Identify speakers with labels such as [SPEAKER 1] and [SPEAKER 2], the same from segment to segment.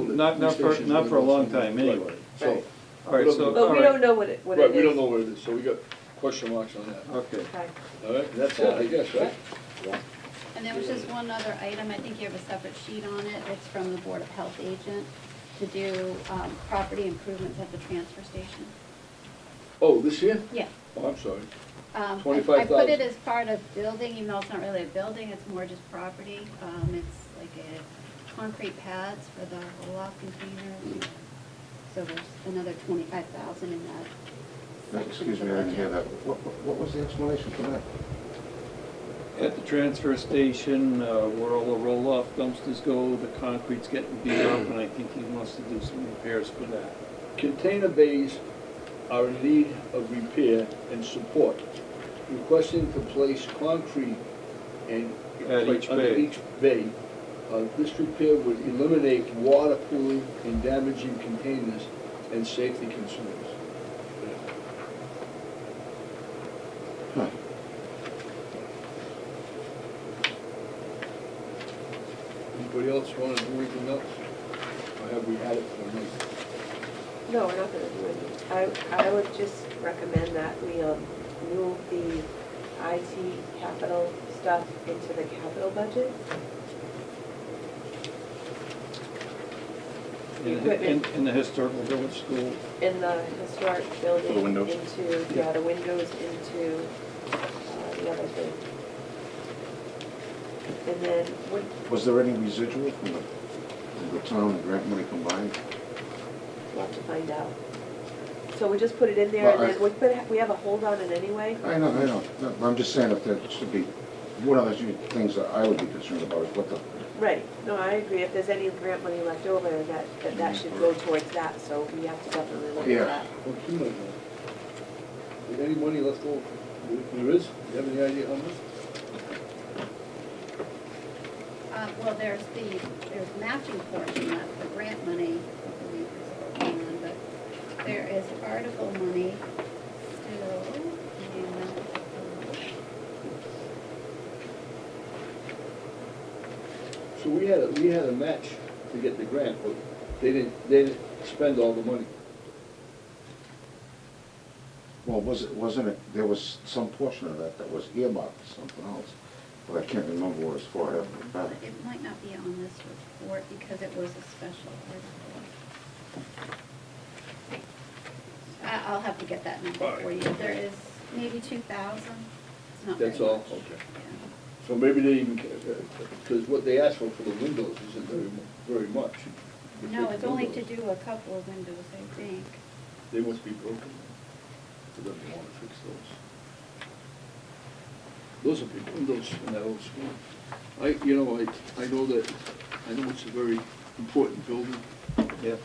[SPEAKER 1] not, not for,
[SPEAKER 2] stations
[SPEAKER 1] not
[SPEAKER 2] we
[SPEAKER 1] for a
[SPEAKER 2] don't
[SPEAKER 1] long
[SPEAKER 2] see.
[SPEAKER 1] time
[SPEAKER 2] Right.
[SPEAKER 1] anyway.
[SPEAKER 2] So,
[SPEAKER 3] Right.
[SPEAKER 1] All right, so,
[SPEAKER 2] But
[SPEAKER 1] all
[SPEAKER 3] But we don't
[SPEAKER 1] right,
[SPEAKER 3] know what it, what it is.
[SPEAKER 2] right, we don't know what it is, so we got question marks on that,
[SPEAKER 1] okay.
[SPEAKER 3] Okay.
[SPEAKER 2] all right? That's it, I guess, right?
[SPEAKER 4] And there was just one other item, I think you have a separate sheet on it, it's from the Board of Health agent to do um, property improvements at the transfer station.
[SPEAKER 2] Oh, this here?
[SPEAKER 4] Yeah.
[SPEAKER 2] Oh, I'm sorry.
[SPEAKER 4] Um, I- I put
[SPEAKER 2] 25,000.
[SPEAKER 4] it as part of building, even though it's not really a building, it's more just property. Um, It's like a concrete pads for the roll-off containers. So there's another twenty-five thousand in that. section of
[SPEAKER 5] Excuse
[SPEAKER 4] the
[SPEAKER 5] me, I didn't hear that.
[SPEAKER 4] budget.
[SPEAKER 5] What, what- what was the explanation for that?
[SPEAKER 1] At the transfer station, uh, where all the roll-off dumpsters go, the concrete's getting beat up, and I think he wants to do some repairs for that.
[SPEAKER 2] Container bays are in need of repair and support. Requesting to place concrete and.
[SPEAKER 1] At each
[SPEAKER 2] under
[SPEAKER 1] bay.
[SPEAKER 2] each bay. Uh, This repair would eliminate water pooling and damaging containers and safety concerns. Anybody else want to do anything else? Or have we had it for a night?
[SPEAKER 3] No, we're not gonna do it. I, I would just recommend that we um, move the IT capital stuff into the capital budget.
[SPEAKER 1] In, in- in the historical village school,
[SPEAKER 3] in the historic building.
[SPEAKER 5] The windows.
[SPEAKER 3] Into, yeah, the windows into uh, the other thing. And then, what,
[SPEAKER 5] Was there any residual from the, did the town and grant money combined?
[SPEAKER 3] we'll have to find out. So we just put it in there, and
[SPEAKER 5] Well, I-
[SPEAKER 3] then we put, we have a hold on it anyway.
[SPEAKER 5] I know, I know, No, I'm just saying if there should be, one of the few things that I would be concerned about is what the,
[SPEAKER 3] Right, no, I agree, if there's any grant money left over, that, that that should go towards that, so we have to definitely look
[SPEAKER 5] Yeah.
[SPEAKER 3] at that.
[SPEAKER 2] Well, two might know. Is any money left over? There- There is? You have any idea how much?
[SPEAKER 4] Uh, Well, there's the, there's matching portion left, the grant money, I believe is what we're working on, but there is article money still. and, uh,
[SPEAKER 2] So we had, a we had a match to get the grant, but they didn't, they didn't spend all the money.
[SPEAKER 5] well, was, it wasn't it, there was some portion of that that was earmarked for something else, but I can't remember what it was for, I have to
[SPEAKER 4] Well,
[SPEAKER 5] remember.
[SPEAKER 4] it might not be on this report because it was a special article. I- I'll have to get that number for you. There is maybe two thousand. It's not very
[SPEAKER 2] That's all?
[SPEAKER 4] much.
[SPEAKER 2] Okay.
[SPEAKER 4] Yeah.
[SPEAKER 2] So maybe they even, because what they asked for for the windows isn't very, mu- very much.
[SPEAKER 4] No, it's only to
[SPEAKER 2] Windows,
[SPEAKER 4] do a couple of windows, I think.
[SPEAKER 2] They must be broken. They don't want to fix those. Those are big windows in that old school. I, you know, I, I know that, I know it's a very important building,
[SPEAKER 1] yeah.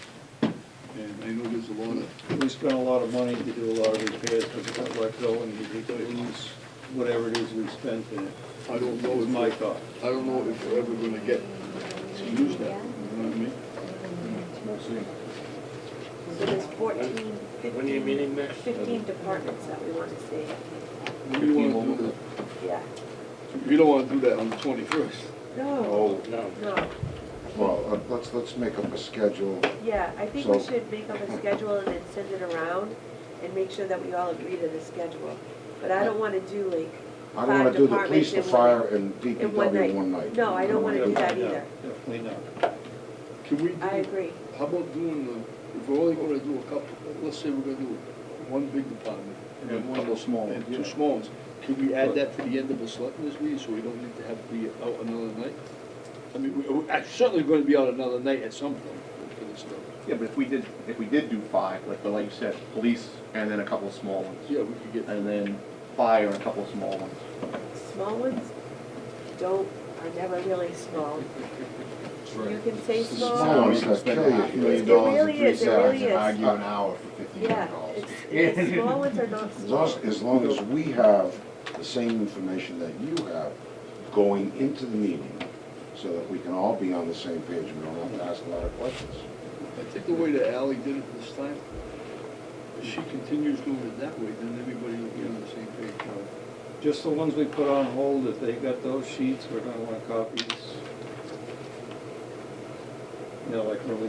[SPEAKER 2] and I know there's a lot of
[SPEAKER 1] We spent a lot of money to do a lot of repairs, but we got let go, and we did lose whatever it is we spent in it.
[SPEAKER 2] I don't
[SPEAKER 1] That
[SPEAKER 2] know
[SPEAKER 1] was
[SPEAKER 2] if,
[SPEAKER 1] my thought.
[SPEAKER 2] I don't know if we're ever gonna get to use that, you know what I mean?
[SPEAKER 3] So there's fourteen,
[SPEAKER 6] When are you
[SPEAKER 3] fifteen,
[SPEAKER 6] meeting next?
[SPEAKER 3] fifteen departments that we want to see,
[SPEAKER 2] We don't wanna do
[SPEAKER 3] yeah.
[SPEAKER 2] that, we don't wanna do that on the twenty-first.
[SPEAKER 3] No,
[SPEAKER 5] Oh,
[SPEAKER 6] No.
[SPEAKER 3] no,
[SPEAKER 5] well, uh, let's, let's make up a schedule,
[SPEAKER 3] yeah, I think we
[SPEAKER 5] So-
[SPEAKER 3] should make up a schedule and then send it around and make sure that we all agree to the schedule. But I don't want to do like
[SPEAKER 5] I don't wanna
[SPEAKER 3] Five
[SPEAKER 5] do the
[SPEAKER 3] departments
[SPEAKER 5] police, the
[SPEAKER 3] in one-
[SPEAKER 5] fire, and
[SPEAKER 3] in one
[SPEAKER 5] DPW
[SPEAKER 3] night.
[SPEAKER 5] in one night.
[SPEAKER 3] No, I don't wanna do that
[SPEAKER 1] No,
[SPEAKER 3] either.
[SPEAKER 1] Definitely not.
[SPEAKER 2] Can we, do-
[SPEAKER 3] I agree.
[SPEAKER 2] how about doing the, if we're only gonna do a couple, let's say we're gonna do one big department.
[SPEAKER 1] And then one little small one,
[SPEAKER 2] And
[SPEAKER 1] yeah.
[SPEAKER 2] two small ones, can we add that to the end of the selectmen's meeting, so we don't need to have to be out another night? I mean, we- we're certainly gonna be out another night at some point for this stuff.
[SPEAKER 7] Yeah, but if we did, if we did do five, like, but like you said, police and then a couple of small ones,
[SPEAKER 2] Yeah, we could get,
[SPEAKER 7] and then fire and a couple of small ones.
[SPEAKER 3] Small ones don't, are never really small. You can say
[SPEAKER 8] It's a
[SPEAKER 3] small.
[SPEAKER 5] Small ones
[SPEAKER 8] Spend
[SPEAKER 5] that kill you.
[SPEAKER 8] half a million
[SPEAKER 3] It
[SPEAKER 8] dollars
[SPEAKER 3] really
[SPEAKER 8] in three
[SPEAKER 3] is, it
[SPEAKER 8] seconds
[SPEAKER 3] really
[SPEAKER 8] and
[SPEAKER 3] is.
[SPEAKER 8] argue an hour for fifteen
[SPEAKER 3] Yeah,
[SPEAKER 8] hundred dollars.
[SPEAKER 3] it's, it's, small ones are not
[SPEAKER 5] As
[SPEAKER 3] small.
[SPEAKER 5] long, as long as we have the same information that you have going into the meeting, so that we can all be on the same page, and we don't have to ask a lot of questions.
[SPEAKER 2] I think the way that Ally did it this time, if she continues doing it that way, then everybody will be on the same page.
[SPEAKER 1] Just the ones we put on hold, if they got those sheets, we're gonna want copies. You know, like really